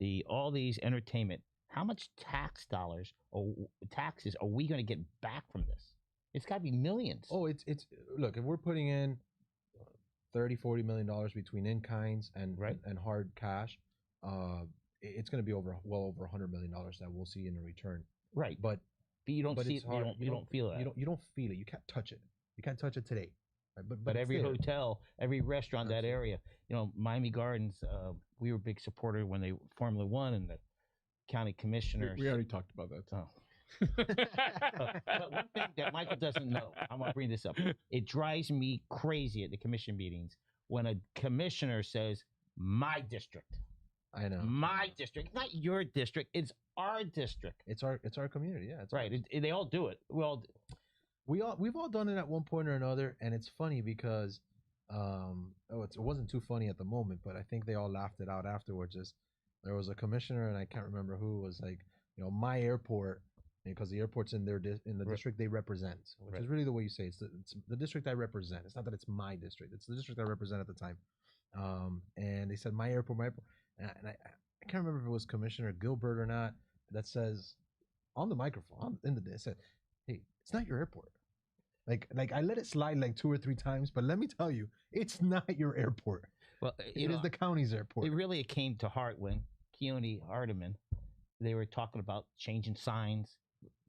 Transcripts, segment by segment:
the all these entertainment. How much tax dollars or taxes are we going to get back from this? It's got to be millions. Oh, it's it's look, if we're putting in 30 40 million dollars between in kinds and Right. and hard cash, uh it- it's going to be over well over 100 million dollars that we'll see in return. right, but, But you don't but see it. it's You hard. don't, you You don't, don't- feel that. you don't you don't feel it. You can't touch it. You can't touch it today. Right? But but, it's every there. hotel, every restaurant, that Absolutely. area, you know, Miami Gardens. Uh, we were a big supporter when they Formula One and the county We, commissioners. we already talked about that. Oh. but one thing that Michael doesn't know, I'm gonna bring this up. It drives me crazy at the commission meetings when a commissioner says, "My district, I know. Mm. my district, not your district. It's our district." It's our it's our community. Yeah, it's Right? It, it- they all do it. Well, we all we've all done it at one point or another and it's funny because um oh it's, it wasn't too funny at the moment but i think they all laughed it out afterwards is there was a commissioner and i can't remember who was like you know my airport because the airport's in their dis- in the Right. district they represent which Right. is really the way you say it. it's the, it's the district i represent it's not that it's my district it's the district i represent at the time um and they said my airport my airport and I, and I, I can't remember if it was commissioner gilbert or not that says on the microphone on, in the it said hey, it's not your airport. Like, like I let it slide like two or three times, but let me tell you, it's not your airport. well, It is the county's airport. It really came to heart when Keone Hardeman, they were talking about changing signs,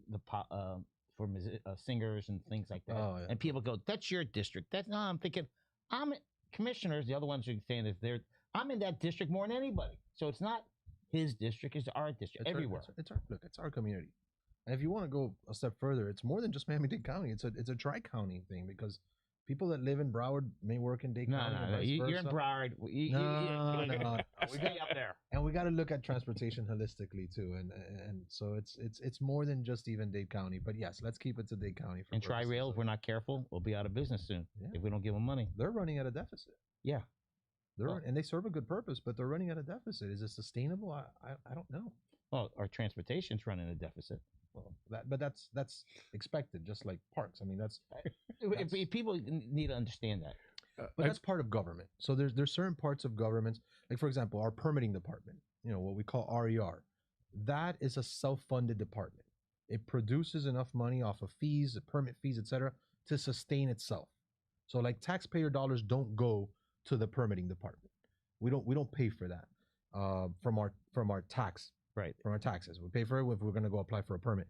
the po- uh, for musi- uh, singers and things like that. Oh, yeah. And people go, "That's your district." That's not. I'm thinking, I'm commissioners. The other ones are saying is they're. I'm in that district more than anybody. So it's not his district; it's our district It's our- everywhere. it's, it's our look. It's our community. And if you want to go a step further, it's more than just Miami-Dade County. It's a it's a tri-county thing because people that live in Broward may work in Dade no, County. no, and no. vice You, are in versa. Broward. You- you- No, you- no, no. Stay up there. and we got to look at transportation holistically too, and and so it's it's it's more than just even Dade County. But yes, let's keep it to Dade County. For And Tri purposes Rail, if of- we're not careful, we'll be out of business soon Yeah. if we don't give them money. they're running at a deficit. Yeah. They're Oh. and they serve a good purpose, but they're running at a deficit. Is it sustainable? I I, I don't know. Well, Oh, our transportation's running a deficit. Well, that but that's that's expected, just like parks. I mean, that's If, That's- if people n- need to understand that, Uh, but I- that's part of government. So there's there's certain parts of governments, like for example, our permitting department. You know what we call RER. That is a self-funded department. It produces enough money off of fees, the permit fees, etc., to sustain itself. So like taxpayer dollars don't go to the permitting department. We don't we don't pay for that uh, from our from our tax Right. from our taxes. We pay for it if we're going to go apply for a permit.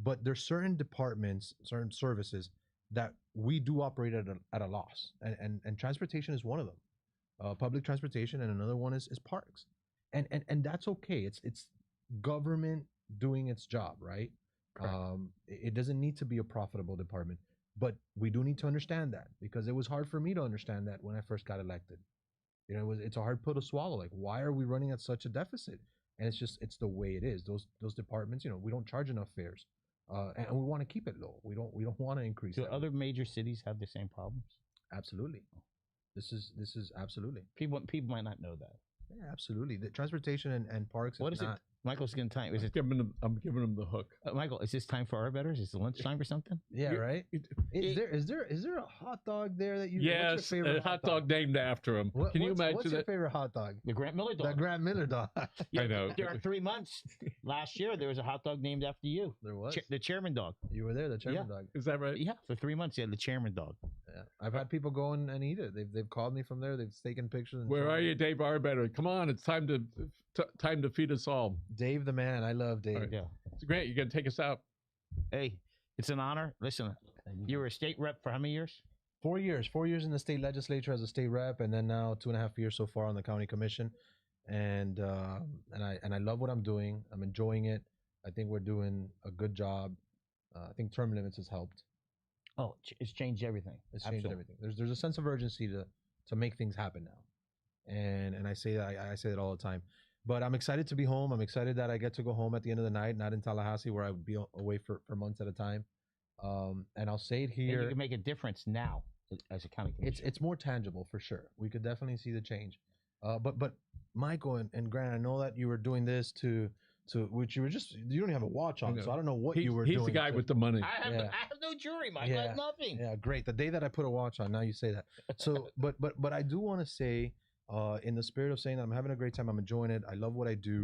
But there's certain departments, certain services that we do operate at a, at a loss, and, and and transportation is one of them, uh, public transportation, and another one is is parks, and and and that's okay. It's it's government doing its job, right? Correct. Um, it it doesn't need to be a profitable department, but we do need to understand that because it was hard for me to understand that when I first got elected. You know, it was it's a hard pill to swallow. Like, why are we running at such a deficit? And it's just it's the way it is. Those those departments, you know, we don't charge enough fares, uh, and, and we want to keep it low. We don't we don't want to increase. do that. other major cities have the same problems? Absolutely. This is this is absolutely People people might not know that. yeah, absolutely the transportation and, and parks. What is not, it? Michael's getting time. Is I'm it giving them, I'm giving them the hook. uh, Michael? Is this time for our betters? Is it lunchtime or something? Yeah, You- right. it- Is it- there is there is there a hot dog there that you? yes, a hot dog named after him. What- Can you what's- imagine what's your that? favorite hot dog? The Grant Miller The dog. Grant Miller dog. I know. there are three months last year. There was a hot dog named after you. there was. Cha- the chairman dog. You were there, the chairman dog. Is that right? Yeah, for three months you had the chairman dog. Yeah. I've had people go in and eat it. They've they've called me from there. They've taken pictures. And Where shown are me. you, Dave Arbetter? Come on, it's time to t- time to feed us all. Dave the man. I love Dave. right. Yeah. Grant, you gonna take us out? Hey, it's an honor. Listen, you were a state rep for how many years? four years four years in the state legislature as a state rep and then now two and a half years so far on the county commission and uh, and i and i love what i'm doing i'm enjoying it i think we're doing a good job uh, i think term limits has helped Oh, ch- it's changed everything. it's changed Absolutely. everything there's there's a sense of urgency to to make things happen now and and i say that I, I say that all the time but i'm excited to be home i'm excited that i get to go home at the end of the night not in tallahassee where i would be a- away for for months at a time um and i'll say it And here you can make a difference now as a county commissioner. it's it's more tangible for sure. We could definitely see the change. Uh, but but Michael and, and Grant, I know that you were doing this to to which you were just you don't even have a watch on, I know. so I don't know what He's, you were he's doing. the guy to- with the money. I have, Yeah. I have no jury, Michael. I have Yeah. nothing. yeah, great. The day that I put a watch on, now you say that. So, but but but I do want to say, uh, in the spirit of saying that I'm having a great time, I'm enjoying it. I love what I do.